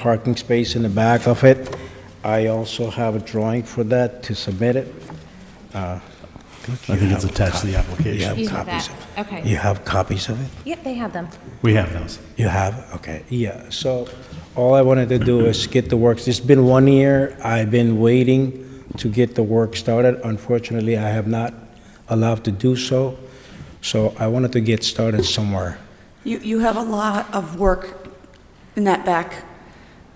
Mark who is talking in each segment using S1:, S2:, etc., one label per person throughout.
S1: parking space in the back of it. I also have a drawing for that to submit it. Uh,
S2: I think it's attached to the
S1: You
S2: application.
S1: have
S3: Excuse me,
S1: copies.
S3: that-
S1: of-
S3: okay.
S1: You have copies of it?
S3: Yep, they have them.
S2: We have those.
S1: You have, okay, yeah, so all I wanted to do is get the works, it's been one year, I've been waiting to get the work started, unfortunately, I have not allowed to do so, so I wanted to get started somewhere.
S4: You, you have a lot of work in that back.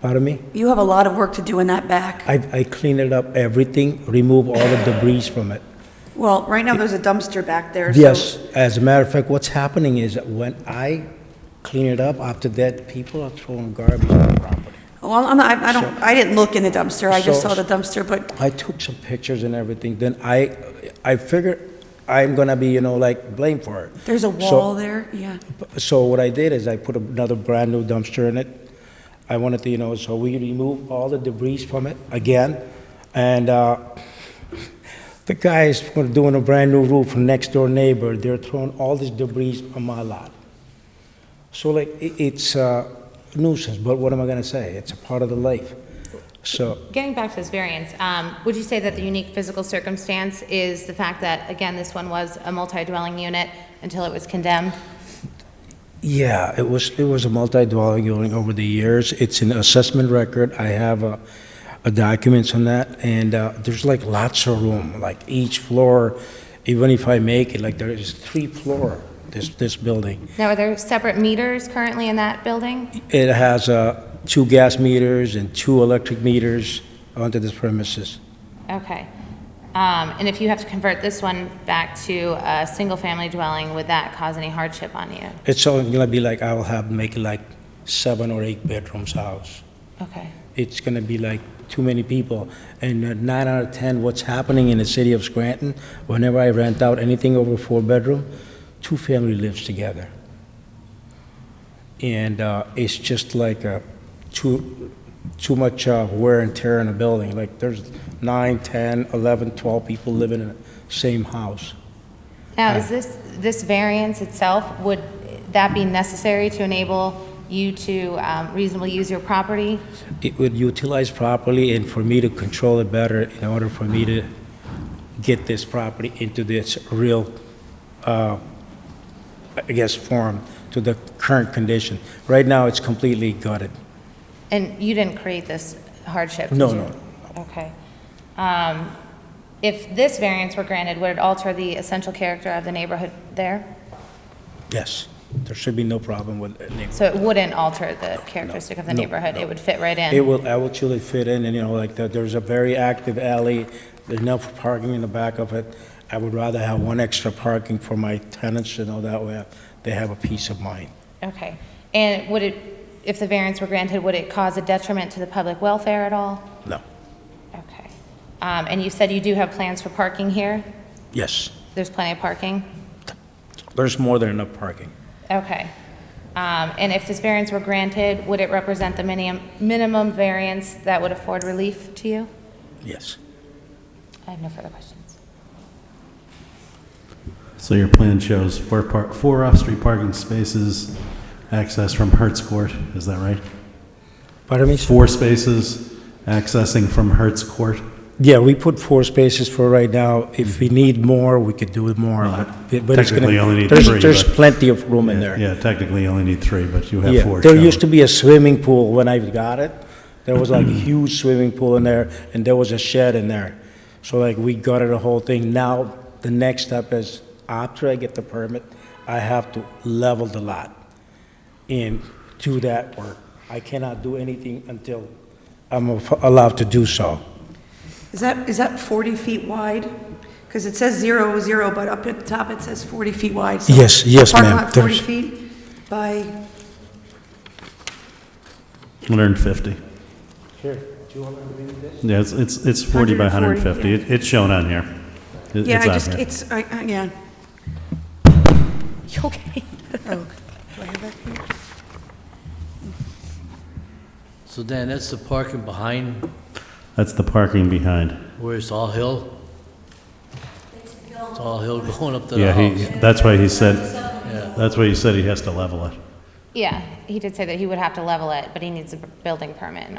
S1: Pardon me?
S4: You have a lot of work to do in that back.
S1: I, I cleaned it up, everything, remove all the debris from it.
S4: Well, right now, there's a dumpster back there, so...
S1: Yes, as a matter of fact, what's happening is that when I clean it up, after that, people are throwing garbage on the property.
S4: Well, I'm not, I I don't, I didn't look in the dumpster, I just
S1: So-
S4: saw the dumpster, but
S1: I took some pictures and everything, then I, I figured I'm gonna be, you know, like blamed for it.
S4: there's a
S1: So-
S4: wall there, yeah.
S1: So what I did is I put another brand-new dumpster in it. I wanted to, you know, so we remove all the debris from it again, and uh, the guys were doing a brand-new roof from next-door neighbor, they're throwing all this debris on my lot. So like, i- it's a nuisance, but what am I gonna say? It's a part of the life. So,
S3: Getting back to this variance, um, would you say that the unique physical circumstance is the fact that, again, this one was a multi-dwelling unit until it was condemned?
S1: Yeah, it was, it was a multi-dwelling unit over the years. It's an assessment record. I have uh, uh, documents on that, and uh, there's like lots of room, like each floor, even if I make it, like there is three floor, this, this building.
S3: Now, are there separate meters currently in that building?
S1: It has uh, two gas meters and two electric meters onto this premises.
S3: Okay. Um, And if you have to convert this one back to a single-family dwelling, would that cause any hardship on you?
S1: It's all gonna be like, I will have, make it like seven or eight bedrooms house.
S3: Okay.
S1: it's going to be like too many people. And uh, nine out of 10, what's happening in the city of Scranton, whenever I rent out anything over four-bedroom, two family lives together. And uh, it's just like uh, too, too much uh, wear and tear in a building. Like, there's nine, 10, 11, 12 people living in the same house.
S3: Now, is this, this variance itself, would that be necessary to enable you to um, reasonably use your property?
S1: It would utilize properly, and for me to control it better, in order for me to get this property into this real uh, I guess, form to the current condition. Right now, it's completely gutted.
S3: And you didn't create this hardship? did
S1: No,
S3: you?
S1: no, no.
S3: Okay. Um, If this variance were granted, would it alter the essential character of the neighborhood there?
S1: Yes, there should be no problem with it.
S3: So it wouldn't alter the characteristic of the
S1: no,
S3: neighborhood?
S1: no.
S3: It would fit right in?
S1: It will, I will truly fit in, and you know, like, there- there's a very active alley, there's enough parking in the back of it. I would rather have one extra parking for my tenants, you know, that way they have a peace of mind.
S3: Okay. And would it, if the variance were granted, would it cause a detriment to the public welfare at all?
S1: No,
S3: Okay. Um, And you said you do have plans for parking here?
S1: yes,
S3: There's plenty of parking?
S1: there's more than enough parking.
S3: Okay. Um, And if this variance were granted, would it represent the minimum, minimum variance that would afford relief to you?
S1: Yes,
S3: I have no further questions.
S2: So your plan shows four par, four off-street parking spaces, access from Hertz Court, is that right?
S1: pardon me?
S2: Four spaces accessing from Hertz Court?
S1: Yeah, we put four spaces for right now. If we need more, we could do it more, but, but it's gonna...
S2: Technically, you only need
S1: there's-
S2: three,
S1: There's
S2: but-
S1: plenty of room in there.
S2: Yeah, technically you only need three, but you have
S1: Yeah,
S2: four.
S1: there used to be a swimming pool when I got it. There was like a huge swimming pool in there, and there was a shed in there. So like, we gutted the whole thing. Now, the next step is, after I get the permit, I have to level the lot and do that work. I cannot do anything until I'm allowed to do so.
S4: Is that, is that 40 feet wide? Because it says zero, zero, but up at the top it says 40 feet wide. so
S1: Yes, yes, ma'am.
S4: Parking lot 40
S1: There's-
S4: feet by,
S2: 150.
S1: Here, do you want to read this?
S2: Yeah, it's, it's it's 40 by
S4: 140,
S2: 150.
S4: yeah.
S2: It- It's shown on here. It-
S4: yeah, I
S2: It's on
S4: just,
S2: here.
S4: it's, I- I- yeah.
S3: You okay?
S4: Oh, do I have that here?
S5: So Dan, that's the parking behind
S2: That's the parking behind.
S5: where it's all hill? It's all hill going up to the
S2: Yeah, he,
S5: house.
S2: that's why he said, that's why he said he has to level it.
S3: Yeah, he did say that he would have to level it, but he needs a building permit in